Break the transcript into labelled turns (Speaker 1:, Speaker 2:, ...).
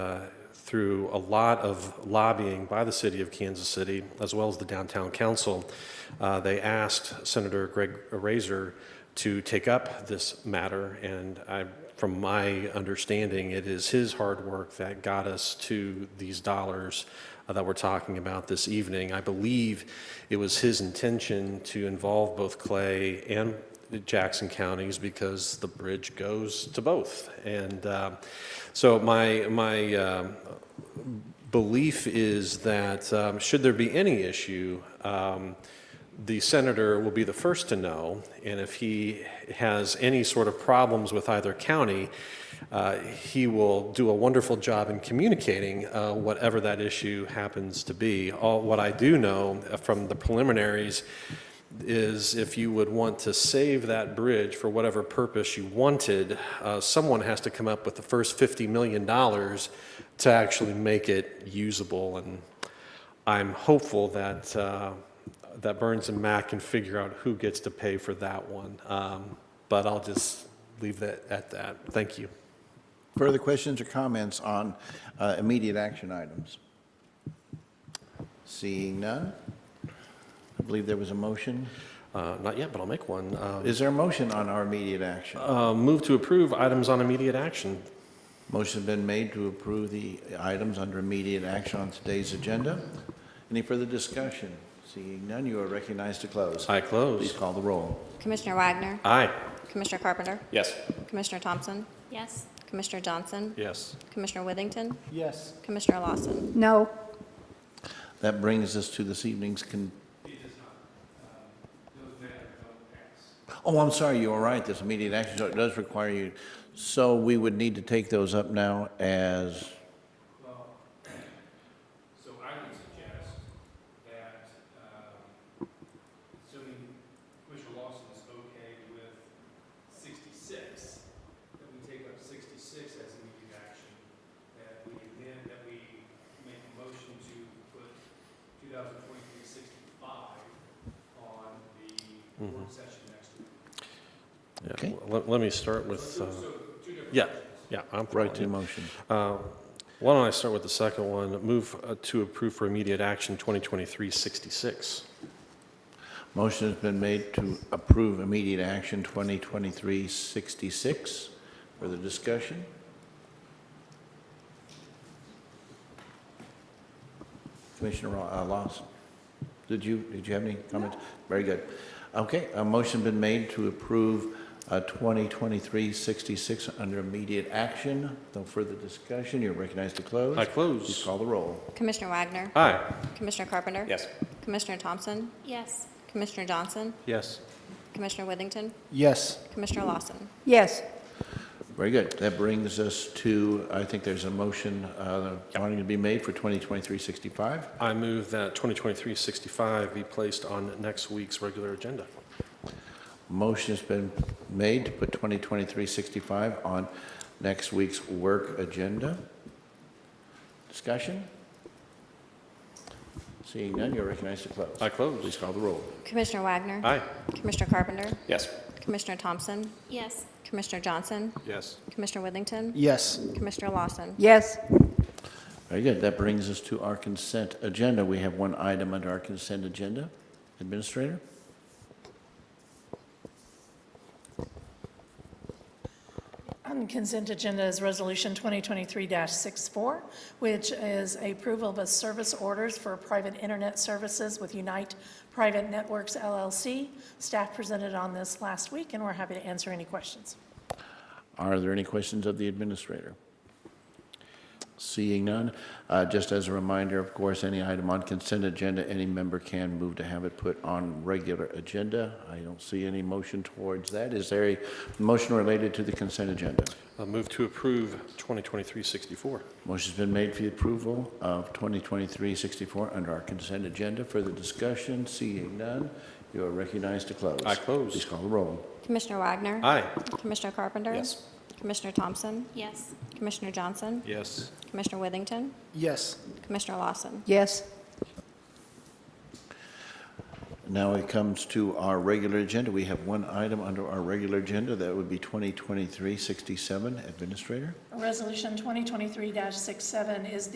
Speaker 1: through a lot of lobbying by the city of Kansas City, as well as the downtown council, uh, they asked Senator Greg Razor to take up this matter. And I, from my understanding, it is his hard work that got us to these dollars uh, that we're talking about this evening. I believe it was his intention to involve both Clay and Jackson counties because the bridge goes to both. And uh, so my, my um, belief is that um, should there be any issue, um, the senator will be the first to know. And if he has any sort of problems with either county, uh, he will do a wonderful job in communicating uh, whatever that issue happens to be. All, what I do know uh, from the preliminaries is if you would want to save that bridge for whatever purpose you wanted, uh, someone has to come up with the first $50 million to actually make it usable. And I'm hopeful that, uh, that Burns and Mac can figure out who gets to pay for that one. Um, But I'll just leave that at that. Thank you.
Speaker 2: Further questions or comments on uh, immediate action items? Seeing none, I believe there was a motion.
Speaker 1: Uh, Not yet, but I'll make one. Uh,
Speaker 2: Is there a motion on our immediate action?
Speaker 1: uh, Move to approve items on immediate action.
Speaker 2: Motion's been made to approve the items under immediate action on today's agenda. Any further discussion? Seeing none, you are recognized to close.
Speaker 1: I
Speaker 2: Please
Speaker 1: close.
Speaker 2: call the roll.
Speaker 3: Commissioner Wagner,
Speaker 1: Aye.
Speaker 3: Commissioner Carpenter,
Speaker 1: Yes.
Speaker 3: Commissioner Thompson,
Speaker 4: Yes.
Speaker 3: Commissioner Johnson,
Speaker 1: Yes.
Speaker 3: Commissioner Withington,
Speaker 2: Yes.
Speaker 3: Commissioner Lawson.
Speaker 4: No.
Speaker 2: That brings us to this evening's con... Oh, I'm sorry, you are right, this immediate action, so it does require you, so we would need to take those up now as,
Speaker 5: So I would suggest that, um, assuming Commissioner Lawson is okay with 66, that we take up 66 as immediate action, that we then, that we make a motion to put 2023-65 on the work session next week.
Speaker 1: Mm-hmm. Yeah,
Speaker 2: Okay.
Speaker 1: well, Let, let me start with, uh, yeah, yeah, I'm
Speaker 2: right to
Speaker 1: following
Speaker 2: motion.
Speaker 1: you. Uh, Why don't I start with the second one? Move uh, to approve for immediate action 2023-66.
Speaker 2: Motion has been made to approve immediate action 2023-66. Further discussion? Commissioner Ra- uh, Lawson, did you, did you have any comments? Very good. Okay, a motion been made to approve uh, 2023-66 under immediate action. No further discussion, you're recognized to close.
Speaker 1: I
Speaker 2: Please
Speaker 1: close.
Speaker 2: call the roll.
Speaker 3: Commissioner Wagner,
Speaker 1: Aye.
Speaker 3: Commissioner Carpenter.
Speaker 1: Yes.
Speaker 3: Commissioner Thompson,
Speaker 4: Yes.
Speaker 3: Commissioner Johnson,
Speaker 1: Yes.
Speaker 3: Commissioner Withington,
Speaker 2: Yes.
Speaker 3: Commissioner Lawson.
Speaker 4: Yes.
Speaker 2: Very good. That brings us to, I think there's a motion uh, wanting to be made for 2023-65.
Speaker 1: I move that 2023-65 be placed on next week's regular agenda.
Speaker 2: Motion has been made to put 2023-65 on next week's work agenda. Discussion? Seeing none, you're recognized to close.
Speaker 1: I
Speaker 2: Please
Speaker 1: close.
Speaker 2: call the roll.
Speaker 3: Commissioner Wagner,
Speaker 1: Aye.
Speaker 3: Commissioner Carpenter,
Speaker 1: Yes.
Speaker 3: Commissioner Thompson,
Speaker 4: Yes.
Speaker 3: Commissioner Johnson,
Speaker 1: Yes.
Speaker 3: Commissioner Withington,
Speaker 6: Yes.
Speaker 3: Commissioner Lawson.
Speaker 4: Yes.
Speaker 2: Very good. That brings us to our consent agenda. We have one item under our consent agenda. Administrator?
Speaker 7: On consent agenda is Resolution 2023-64, which is approval of a service orders for private internet services with Unite Private Networks LLC. Staff presented on this last week, and we're happy to answer any questions.
Speaker 2: Are there any questions of the administrator? Seeing none, uh, just as a reminder, of course, any item on consent agenda, any member can move to have it put on regular agenda. I don't see any motion towards that. Is there a motion related to the consent agenda?
Speaker 1: I move to approve 2023-64.
Speaker 2: Motion's been made for the approval of 2023-64 under our consent agenda. Further discussion, seeing none, you are recognized to close.
Speaker 1: I close.
Speaker 2: Please call the roll.
Speaker 3: Commissioner Wagner.
Speaker 1: Aye.
Speaker 3: Commissioner Carpenter.
Speaker 1: Yes.
Speaker 3: Commissioner Thompson,
Speaker 4: Yes.
Speaker 3: Commissioner Johnson,
Speaker 1: Yes.
Speaker 3: Commissioner Withington,
Speaker 6: Yes.
Speaker 3: Commissioner Lawson.
Speaker 4: Yes.
Speaker 2: Now it comes to our regular agenda. We have one item under our regular agenda. That would be 2023-67, Administrator.
Speaker 7: Resolution 2023-67 is